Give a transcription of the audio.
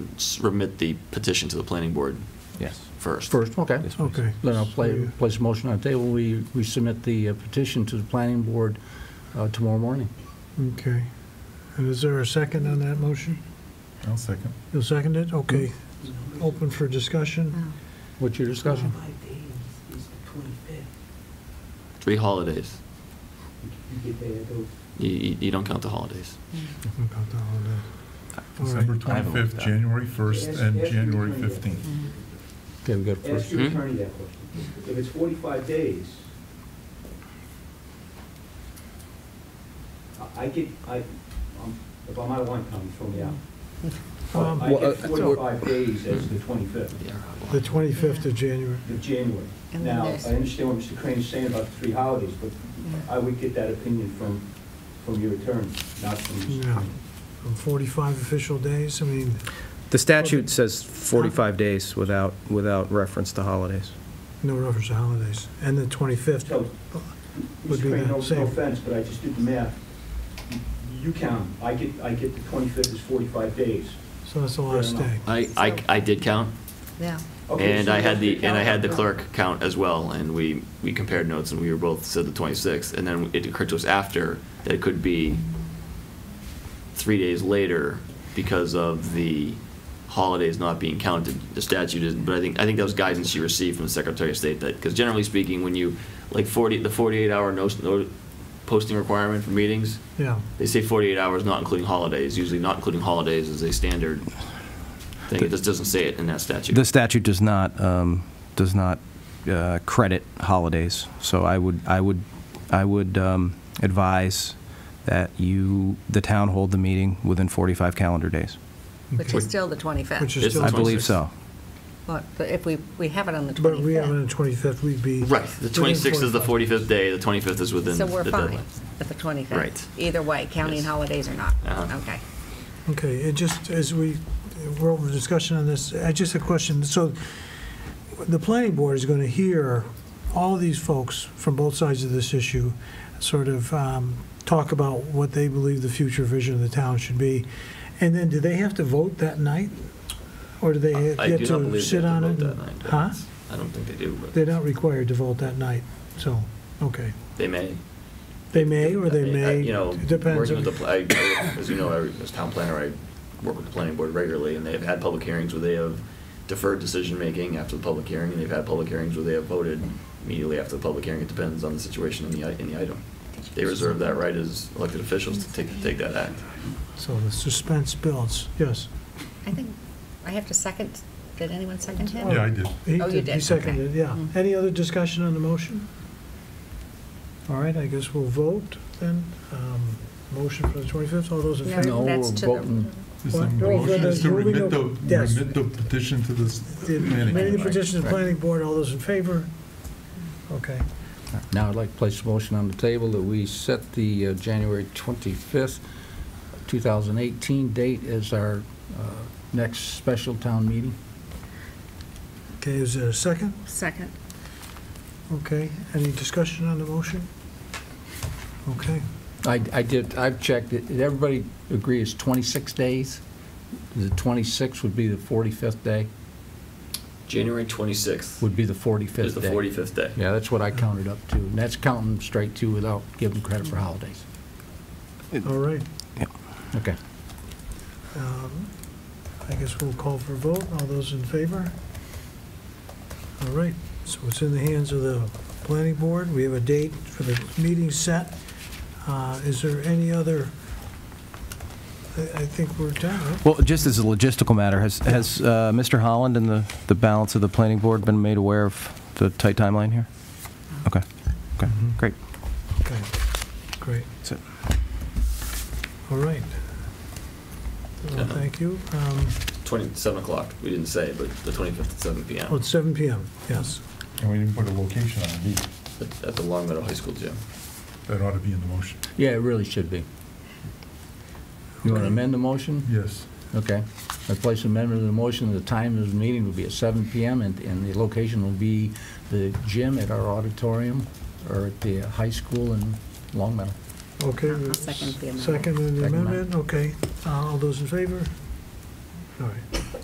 submit the petition to the planning board Yes. first. First, okay. Yes, please. Okay. Then I'll play, So, place a motion on the table. We, we submit the uh, petition to the planning board uh, tomorrow morning. Okay. And is there a second on that motion? I'll second. You'll second it? Okay. Mm-hmm. Open for discussion? What's your discussion? Five days is the twenty-fifth. Three holidays. You get there, those You, you you don't count the holidays. Don't count that one then. All right. December I haven't looked 25th, at it. January 1st, and Yes, yes, January we can do that. 15th. Okay, we got Ask first. your Hmm? attorney that question. If it's forty-five days, I- I get, I, um, if I'm out of line, Tom, throw me out. But Um, I get forty-five days as the twenty-fifth Yeah. The 25th of January. of January. And then Now, there's- I understand what Mr. Crane's saying about the three holidays, but I would get that opinion from, from your attorney, not from Mr. Yeah. Crane. From 45 um, official days, I mean, The statute says 45 days without, without reference to holidays. no reference to holidays. And the 25th, So, Would Mr. be Crane, no no the same. offense, but I just did the math. You count, I get, I get the twenty-fifth is forty-five days. so that's the last Fair day. enough. I, I, I did count, Yeah. Okay, and so I had that's the, good and I had the count. clerk count as well, and we, we compared notes, and we were both said the 26th, and then it occurred to us after that it could be three days later because of the holidays not being counted, the statute isn't, but I think, I think that was guidance she received from the Secretary of State, that, because generally speaking, when you, like 40, the 48-hour no posting requirement for meetings, Yeah. They say 48 hours, not including holidays. Usually, not including holidays is a standard thing. It just doesn't say it in that statute. The statute does not, um, does not uh, credit holidays, so I would, I would, I would um, advise that you, the town hold the meeting within 45 calendar days. Which is Okay. still the 25th. Which is It's still- the I believe so. But but if we, we have it on the 25th. But we have it on the 25th, we'd be. right. The 26th is the 45th day. The 25th is within So we're the fine deadline. with the 25th. Right. Either way, counting Yes. holidays or not. Uh-huh. Okay. Okay, it just, as we, we're over discussion on this, I just a question, so the planning board is gonna hear all these folks from both sides of this issue, sort of um, talk about what they believe the future vision of the town should be, and then do they have to vote that night? Or do they I do get not believe to they sit have on to it? vote that night. but Huh? I don't think they do. But They're not required to vote that night, so, okay. they may. They may or I they mean, I- may, You know, it depends. working on- with the, pl- I, I- as you know, I, as town planner, I work with the planning board regularly, and they have had public hearings where they have deferred decision making after the public hearing, and they've had public hearings where they have voted immediately after the public hearing. It depends on the situation in the i- in the item. They reserve that right as elected officials to take take that act. So the suspense builds, yes. I think, I have to second, did anyone second him? Yeah, I did. He Oh, you did, he did, seconded, it, okay. yeah. Mm. Any other discussion on the motion? All right, I guess we'll vote then. Um, Motion for the 25th, all those in No. favor? No, we're That's to the- voting, Is the Well, motion is to well, remit well, the, yes. remit the petition to this The- planning Many board? petitions to the Right. planning board, all those in favor? Okay, now I'd like to place a motion on the table that we set the uh, January 25th, 2018 date as our uh, next special town meeting. okay, is there a second? Second. Okay, any discussion on the motion? Okay, I, I did, I've checked, it. Did everybody agree it's 26 days? The 26th would be the 45th day, January twenty sixth would be the 45th day. is the forty fifth day. Yeah, that's what I counted up to, and that's counting straight to without giving credit for holidays. all right. Okay. Um, I guess we'll call for a vote. All those in favor? All right, so it's in the hands of the planning board. We have a date for the meeting set. Uh, Is there any other, I I think we're done, right? Well, just as a logistical matter, has, has uh, Mr. Holland and the, the balance of the planning board been made aware of the tight timeline here? Okay, okay, Mm-hmm. great. Okay, great. That's it. All right. Well, Thank you. Um, Twenty seven o'clock. We didn't say, but the twenty fifth at seven p.m. Well, oh, it's 7 PM, yes. And we didn't put a location on it either. at, at the Long Meadow High School gym. That ought to be in the motion. Yeah, it really should be. You want to amend the motion? Yes. Okay. I place amendment to the motion, the time of the meeting will be at 7 PM, and, and the location will be the gym at our auditorium, or at the high school in Long Meadow. Okay. I'll second the amendment. Second and the Second amendment, okay. Uh, All those in favor? All right.